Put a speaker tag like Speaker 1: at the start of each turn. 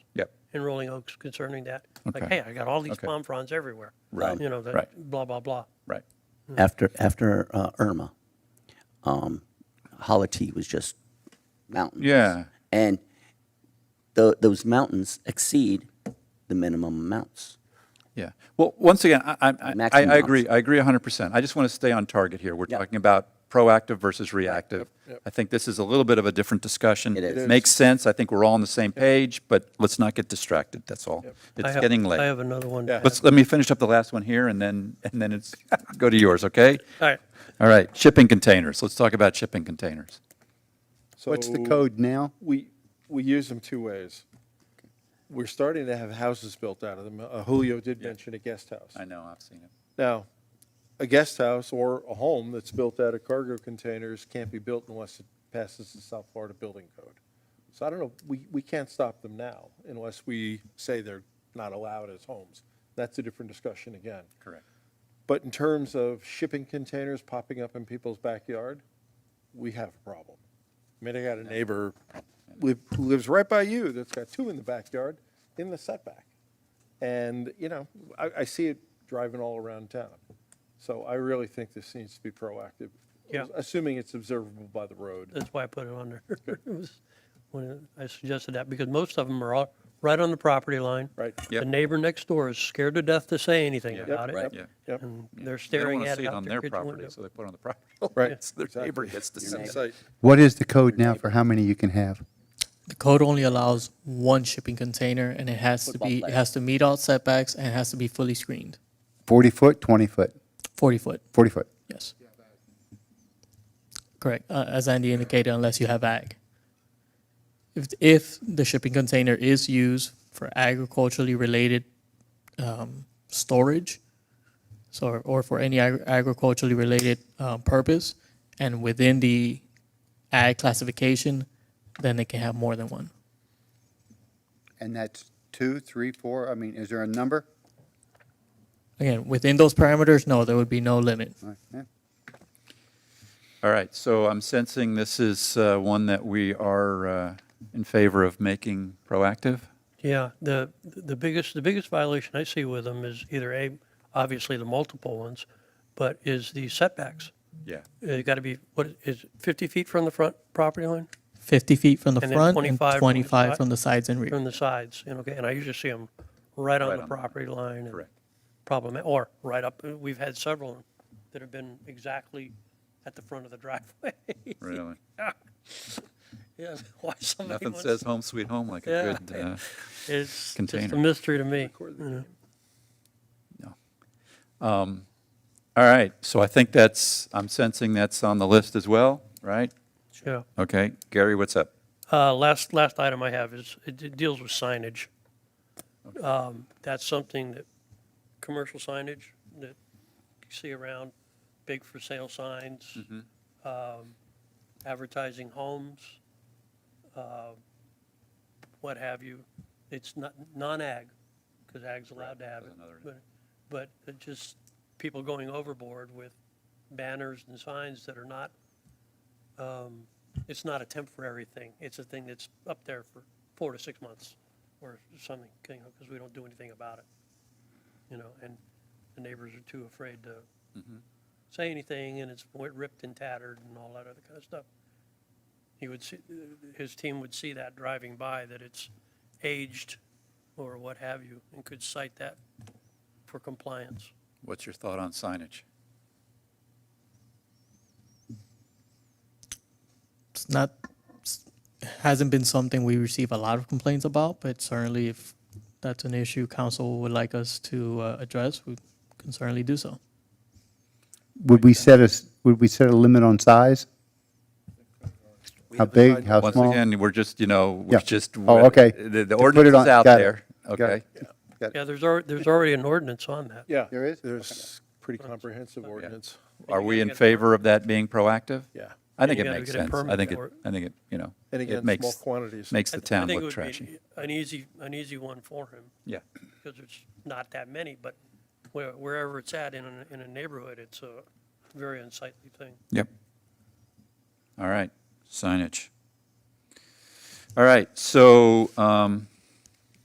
Speaker 1: in Rolling Oaks concerning that. Like,
Speaker 2: Okay.
Speaker 1: hey, I got all these
Speaker 2: Okay.
Speaker 1: palm fronds everywhere.
Speaker 2: Right.
Speaker 1: You know, that,
Speaker 2: Right.
Speaker 1: blah, blah, blah.
Speaker 2: Right.
Speaker 3: After after uh, Irma, um, Holity was just mountains.
Speaker 2: Yeah.
Speaker 3: and tho- those mountains exceed the minimum amounts.
Speaker 2: Yeah. Well, once again, I, I- I, I,
Speaker 3: Maximum
Speaker 2: I agree.
Speaker 3: option.
Speaker 2: I agree 100%. I just want to stay on target here. We're
Speaker 3: Yeah.
Speaker 2: talking about proactive versus reactive. I think this is a little bit of a different discussion.
Speaker 3: It is.
Speaker 2: Makes sense. I think we're all on the same page, but let's not get distracted. That's all.
Speaker 1: I
Speaker 2: It's
Speaker 1: have-
Speaker 2: getting
Speaker 1: I
Speaker 2: late.
Speaker 1: have another one.
Speaker 4: Yeah.
Speaker 2: Let's, let me finish up the last one here and then, and then it's, go to yours, okay?
Speaker 1: All right.
Speaker 2: All right. Shipping containers. Let's talk about shipping containers.
Speaker 5: What's the
Speaker 4: So
Speaker 5: code now?
Speaker 4: We, we use them two ways. We're starting to have houses built out of them. Uh, Julio did mention a guest house.
Speaker 2: I know, I've seen it.
Speaker 4: Now, a guest house or a home that's built out of cargo containers can't be built unless it passes the South Florida Building Code. So I don't know, we, we can't stop them now unless we say they're not allowed as homes. That's a different discussion again.
Speaker 2: Correct.
Speaker 4: But in terms of shipping containers popping up in people's backyard, we have a problem. I mean, I got a neighbor li- who lives right by you that's got two in the backyard in the setback. And, you know, I, I see it driving all around town. So I really think this needs to be proactive.
Speaker 1: Yeah. Uh,
Speaker 4: Assuming it's observable by the road.
Speaker 1: That's why I put it on there. It was- When I suggested that, because most of them are all right on the property line.
Speaker 4: Right.
Speaker 1: The
Speaker 2: Yep.
Speaker 1: neighbor next door is scared to death to say anything
Speaker 2: Yep,
Speaker 1: about it.
Speaker 2: right, yeah.
Speaker 4: Yep.
Speaker 1: And they're
Speaker 2: They don't
Speaker 1: staring
Speaker 2: want to
Speaker 1: at
Speaker 2: see
Speaker 1: it
Speaker 2: it
Speaker 1: out
Speaker 2: on
Speaker 1: their
Speaker 2: their
Speaker 1: kitchen
Speaker 2: property,
Speaker 1: window.
Speaker 2: so they put it on the property.
Speaker 4: Right.
Speaker 2: It's Their
Speaker 4: Exactly.
Speaker 2: neighbor gets to see it.
Speaker 5: What is the code now for how many you can have?
Speaker 6: The code only allows one shipping container and it has to
Speaker 3: Football
Speaker 6: be, it
Speaker 3: player.
Speaker 6: has to meet all setbacks and it has to be fully screened.
Speaker 5: Forty foot, twenty foot,
Speaker 6: Forty foot,
Speaker 5: forty foot.
Speaker 6: yes. Correct, uh, as Andy indicated, unless you have ag. If, if the shipping container is used for agriculturally related, um, storage, so, or for any agri- agriculturally related, uh, purpose, and within the ag classification, then they can have more than one.
Speaker 5: And that's two, three, four. I mean, is there a number?
Speaker 6: Again, within those parameters, no, there would be no limit.
Speaker 5: All right, yeah.
Speaker 2: All right, so I'm sensing this is uh, one that we are uh, in favor of making proactive.
Speaker 1: Yeah, the, the biggest, the biggest violation I see with them is either A, obviously the multiple ones, but is the setbacks.
Speaker 2: Yeah.
Speaker 1: It got to uh, be, what is it, 50 feet from the front property line,
Speaker 6: 50 feet from the
Speaker 1: And then
Speaker 6: front
Speaker 1: 25 from the
Speaker 6: and 25
Speaker 1: side.
Speaker 6: from the sides and rear.
Speaker 1: from the sides, and okay, and I usually see them right on
Speaker 2: Right
Speaker 1: the
Speaker 2: on the-
Speaker 1: property line. and
Speaker 2: correct.
Speaker 1: Problem, or right up, uh, we've had several that have been exactly at the front of the driveway.
Speaker 2: Really?
Speaker 1: Yes, why somebody
Speaker 2: Nothing
Speaker 1: wants.
Speaker 2: says home sweet home like a
Speaker 1: Yeah.
Speaker 2: good, uh,
Speaker 1: It's just
Speaker 2: container.
Speaker 1: a mystery to me. you know.
Speaker 2: all right, so I think that's, I'm sensing that's on the list as well, right?
Speaker 1: Yeah.
Speaker 2: Okay, Gary, what's up?
Speaker 1: Uh, Last, last item I have is, it it deals with signage. Um, That's something that, commercial signage that you see around, big for sale signs,
Speaker 2: Mm-hmm.
Speaker 1: um, advertising homes, uh, what have you. It's not, non-ag, because ag's allowed to have it.
Speaker 2: that's another-
Speaker 1: But but it just, people going overboard with banners and signs that are not um, it's not a temporary thing. It's a thing that's up there for four to six months or something, you know, because we don't do anything about it. You know, and the neighbors are too afraid to say anything and it's wi- ripped and tattered and all that other kind of stuff. He would see, his team would see that driving by, that it's aged or what have you, and could cite that for compliance.
Speaker 2: What's your thought on signage?
Speaker 6: It's not, it's- hasn't been something we receive a lot of complaints about, but certainly if that's an issue council would like us to uh, address, we can certainly do so.
Speaker 5: Would we set a, s- would we set a limit on size? How big, how
Speaker 2: Once
Speaker 5: small?
Speaker 2: again, we're just, you know,
Speaker 5: Yeah.
Speaker 2: we're just.
Speaker 5: Oh, okay.
Speaker 2: The the
Speaker 5: To put it
Speaker 2: ordinance
Speaker 5: on-
Speaker 2: is out
Speaker 5: got it.
Speaker 2: there,
Speaker 5: Got it.
Speaker 2: okay?
Speaker 1: Yeah, there's already, there's already an ordinance on that.
Speaker 4: Yeah.
Speaker 5: There is?
Speaker 4: There's pretty comprehensive ordinance.
Speaker 2: Are
Speaker 1: you
Speaker 2: we
Speaker 1: gotta
Speaker 2: in
Speaker 1: get a
Speaker 2: favor of that being proactive?
Speaker 4: Yeah.
Speaker 2: I
Speaker 1: And
Speaker 2: think
Speaker 1: you
Speaker 2: it
Speaker 1: gotta
Speaker 2: makes
Speaker 1: get a
Speaker 2: sense. I
Speaker 1: permit
Speaker 2: think it,
Speaker 1: for it.
Speaker 2: I think it, you know,
Speaker 4: And
Speaker 2: it
Speaker 4: again,
Speaker 2: makes,
Speaker 4: small quantities.
Speaker 2: makes the
Speaker 1: I th- I
Speaker 2: town
Speaker 1: think it
Speaker 2: look
Speaker 1: would be
Speaker 2: trashy.
Speaker 1: An easy, an easy one for him,
Speaker 2: Yeah,
Speaker 1: because there's not that many, but where- wherever it's at in a, in a neighborhood, it's a very unsightly thing.
Speaker 2: yep. All right, signage. All right, so um,